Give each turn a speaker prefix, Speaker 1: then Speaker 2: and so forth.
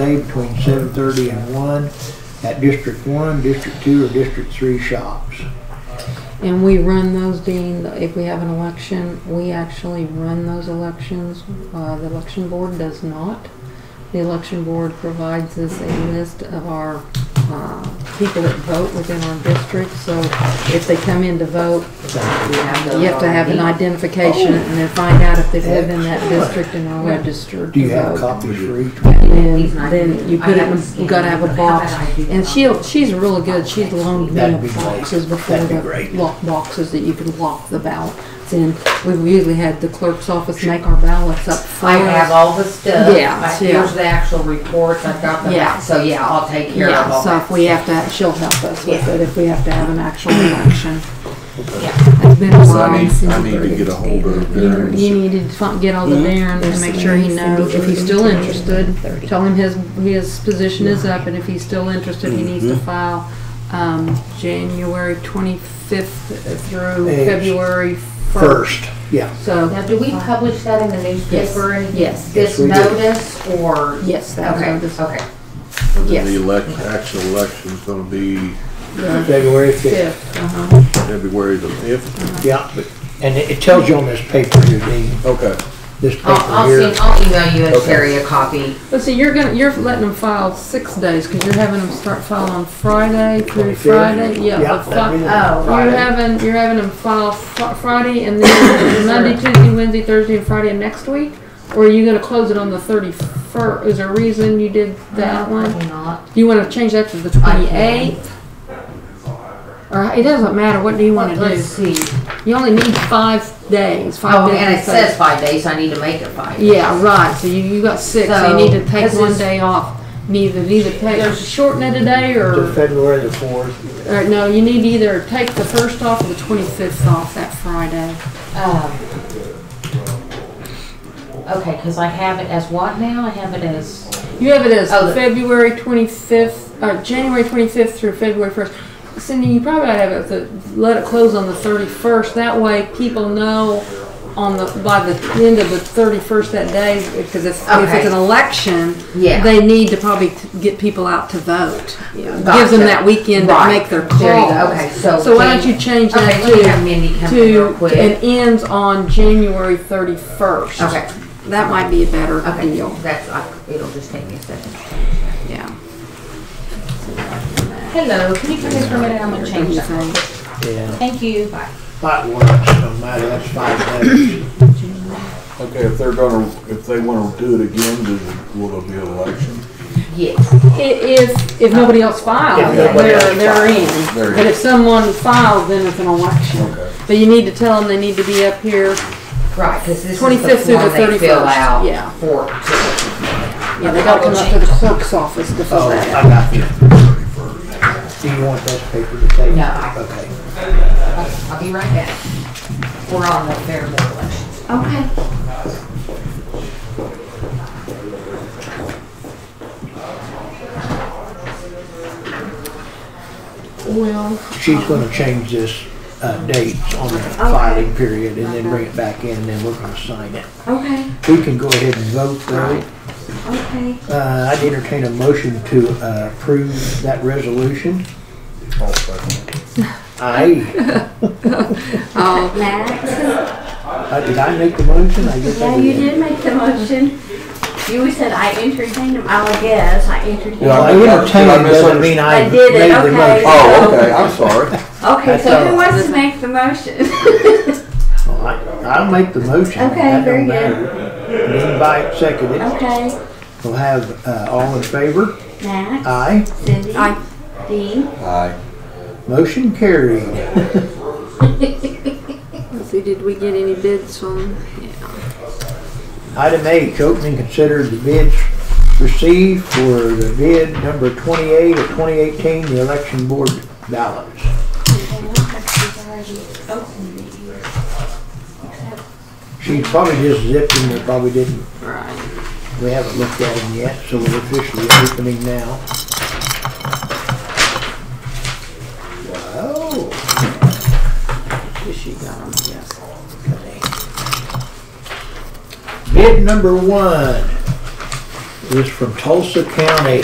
Speaker 1: day between seven thirty and one at District One, District Two, or District Three shops.
Speaker 2: And we run those, Dean, if we have an election, we actually run those elections. Uh, the election board does not. The election board provides us a list of our, uh, people that vote within our district, so if they come in to vote, you have to have an identification and then find out if they live in that district and are registered
Speaker 1: Do
Speaker 2: to
Speaker 1: you have
Speaker 2: vote.
Speaker 1: copies for each one?
Speaker 2: And then you put it, in- you gotta have a box, and she'll, she's really good, she's loaned me
Speaker 1: That'd be great.
Speaker 2: boxes before
Speaker 1: That'd be
Speaker 2: the
Speaker 1: great.
Speaker 2: lock boxes that you can lock the ballots in. We've usually had the clerk's office make our ballots up
Speaker 3: I have
Speaker 2: first.
Speaker 3: all the stuff.
Speaker 2: Yeah,
Speaker 3: I-
Speaker 2: yeah.
Speaker 3: Here's the actual reports, I've got them,
Speaker 2: Yeah.
Speaker 3: out. so yeah, I'll take care of
Speaker 2: Yeah,
Speaker 3: all
Speaker 2: so if we
Speaker 3: that.
Speaker 2: have to, she'll help us with
Speaker 3: Yeah.
Speaker 2: it if we have to have an actual election.
Speaker 3: Yeah.
Speaker 2: It's been a
Speaker 4: So
Speaker 2: while.
Speaker 4: I need, I need to get a hold of
Speaker 2: You
Speaker 4: Darren.
Speaker 2: you need to fi- get all the Darren and make sure he knows if he's still interested. Tell him his, his position is up and if he's still interested, he needs to file, um, January twenty-fifth through
Speaker 1: Yes.
Speaker 2: February first.
Speaker 1: First, yeah.
Speaker 2: So,
Speaker 3: Now, do we publish that in the newspaper? and
Speaker 2: yes,
Speaker 3: This
Speaker 1: Yes, we do.
Speaker 3: notice or?
Speaker 2: yes, that was
Speaker 3: Okay,
Speaker 2: on this,
Speaker 3: okay.
Speaker 4: And then
Speaker 2: yes.
Speaker 4: the elect, actual election's gonna be
Speaker 1: February fifth,
Speaker 2: fifth, uh-huh.
Speaker 4: February the fifth.
Speaker 1: yeah. but- And it it tells you on this paper here, Dean,
Speaker 4: Okay,
Speaker 1: this
Speaker 3: I'll,
Speaker 1: paper
Speaker 3: I'll
Speaker 1: here.
Speaker 3: send, I'll email you and
Speaker 4: Okay.
Speaker 3: Sherry a copy.
Speaker 2: But see, you're gonna, you're letting them file six days, cause you're having them start filing on Friday through
Speaker 1: 25th.
Speaker 2: Friday, yeah.
Speaker 1: Yeah,
Speaker 2: the fi-
Speaker 1: that'd be the-
Speaker 2: You're having, you're having them file fr- Friday and then Monday, Tuesday, Wednesday, Thursday, and Friday of next week? Or are you gonna close it on the thirty-first? Is there a reason you did that one?
Speaker 3: Probably not.
Speaker 2: Do you wanna change that to the
Speaker 3: I
Speaker 2: twenty-eighth? Or, it doesn't matter, what do you wanna
Speaker 3: Let's
Speaker 2: do?
Speaker 3: see.
Speaker 2: You only need five days,
Speaker 3: Oh,
Speaker 2: five days.
Speaker 3: and
Speaker 2: to
Speaker 3: it
Speaker 2: say-
Speaker 3: says five days, I need to make it five. days.
Speaker 2: Yeah, right, so you, you got six, so you
Speaker 3: So,
Speaker 2: need to take
Speaker 3: this
Speaker 2: one
Speaker 3: is-
Speaker 2: day off. Neither, neither take, shorten it a day
Speaker 1: To
Speaker 2: or,
Speaker 1: February the fourth,
Speaker 2: or no, you need to either take the first off or the twenty-fifth off that Friday.
Speaker 3: Um, Okay, because I have it as what now? I have it as,
Speaker 2: You have it as
Speaker 3: Oh, the-
Speaker 2: February 25th, or January 25th through February 1st. Cindy, you probably ought to have it, the, let it close on the 31st. That way people know on the, by the end of the 31st that day, because if, if it's
Speaker 3: Okay.
Speaker 2: an election,
Speaker 3: Yeah.
Speaker 2: they need to probably t- get people out to vote. Gives
Speaker 3: Gotcha.
Speaker 2: them that weekend to
Speaker 3: Right.
Speaker 2: make their calls.
Speaker 3: There you go. Okay, so
Speaker 2: why don't
Speaker 3: Jan-
Speaker 2: you change that
Speaker 3: okay, let me have
Speaker 2: to,
Speaker 3: Mindy come in real
Speaker 2: to,
Speaker 3: quick.
Speaker 2: and ends on January 31st.
Speaker 3: Okay.
Speaker 2: That might be a better
Speaker 3: Okay,
Speaker 2: deal.
Speaker 3: that's, I- it'll just take me a second.
Speaker 2: Yeah.
Speaker 3: Hello, can you come in for a minute? I'm gonna change that.
Speaker 1: yeah.
Speaker 3: Thank you. Bye.
Speaker 1: That works, no matter, that's five days.
Speaker 4: okay, if they're gonna, if they wanna do it again, do, will there be an election?
Speaker 3: Yes.
Speaker 2: I- If, if nobody else
Speaker 1: If
Speaker 2: files,
Speaker 1: nobody
Speaker 2: they're,
Speaker 1: else
Speaker 2: they're
Speaker 4: They're
Speaker 2: in.
Speaker 4: in.
Speaker 2: But if someone files, then it's an election.
Speaker 4: Okay.
Speaker 2: But you need to tell them they need to be up here.
Speaker 3: Right, because this is the
Speaker 2: 25th through the
Speaker 3: form they fill
Speaker 2: 31st,
Speaker 3: out
Speaker 2: yeah.
Speaker 3: for. to-
Speaker 2: Yeah, they gotta come up to the clerk's office to fill
Speaker 1: Oh,
Speaker 2: that
Speaker 1: I
Speaker 2: out.
Speaker 1: got you. Do you want this paper to take?
Speaker 3: No.
Speaker 1: Okay.
Speaker 3: I'll be right back. We're on the fair board elections.
Speaker 2: Okay. Well,
Speaker 1: She's gonna change this, uh, dates on the filing period and then bring it back in and then we're gonna sign it.
Speaker 2: okay,
Speaker 1: We can go ahead and vote though.
Speaker 2: okay.
Speaker 1: Uh, I'd entertain a motion to uh, approve that resolution.
Speaker 4: I'll second it.
Speaker 1: Aye.
Speaker 2: Oh,
Speaker 5: Max,
Speaker 1: Uh, Did I make the motion? I guess
Speaker 5: yeah,
Speaker 1: I
Speaker 5: you did make the motion. You said I entertained him. Oh, yes, I entertained
Speaker 1: Well,
Speaker 5: him.
Speaker 1: I entertained doesn't mean I
Speaker 5: I
Speaker 1: made
Speaker 5: did it,
Speaker 1: the
Speaker 5: okay.
Speaker 1: motion.
Speaker 4: Oh, okay, I'm sorry.
Speaker 5: Okay, so
Speaker 1: thought-
Speaker 5: who wants to make the motion? Okay,
Speaker 1: Well, I- I'll make the motion.
Speaker 5: Okay,
Speaker 1: That don't
Speaker 5: very good.
Speaker 1: matter. Then by second it. We'll have uh, all in favor?
Speaker 5: Max,
Speaker 1: Aye.
Speaker 5: Cindy,
Speaker 2: Aye.
Speaker 5: Dean.
Speaker 4: Aye.
Speaker 1: Motion carried.
Speaker 2: let's see, did we get any bids on?
Speaker 1: Item H, open and consider the bids received for the bid number 28 of 2018, the election board ballots.
Speaker 5: Oh.
Speaker 1: She probably just zipped them, they probably didn't,
Speaker 2: Right.
Speaker 1: we haven't looked at them yet, so we're officially opening now. Wow,
Speaker 2: Guess she got 'em, yes.
Speaker 1: bid number one, This is from Tulsa County.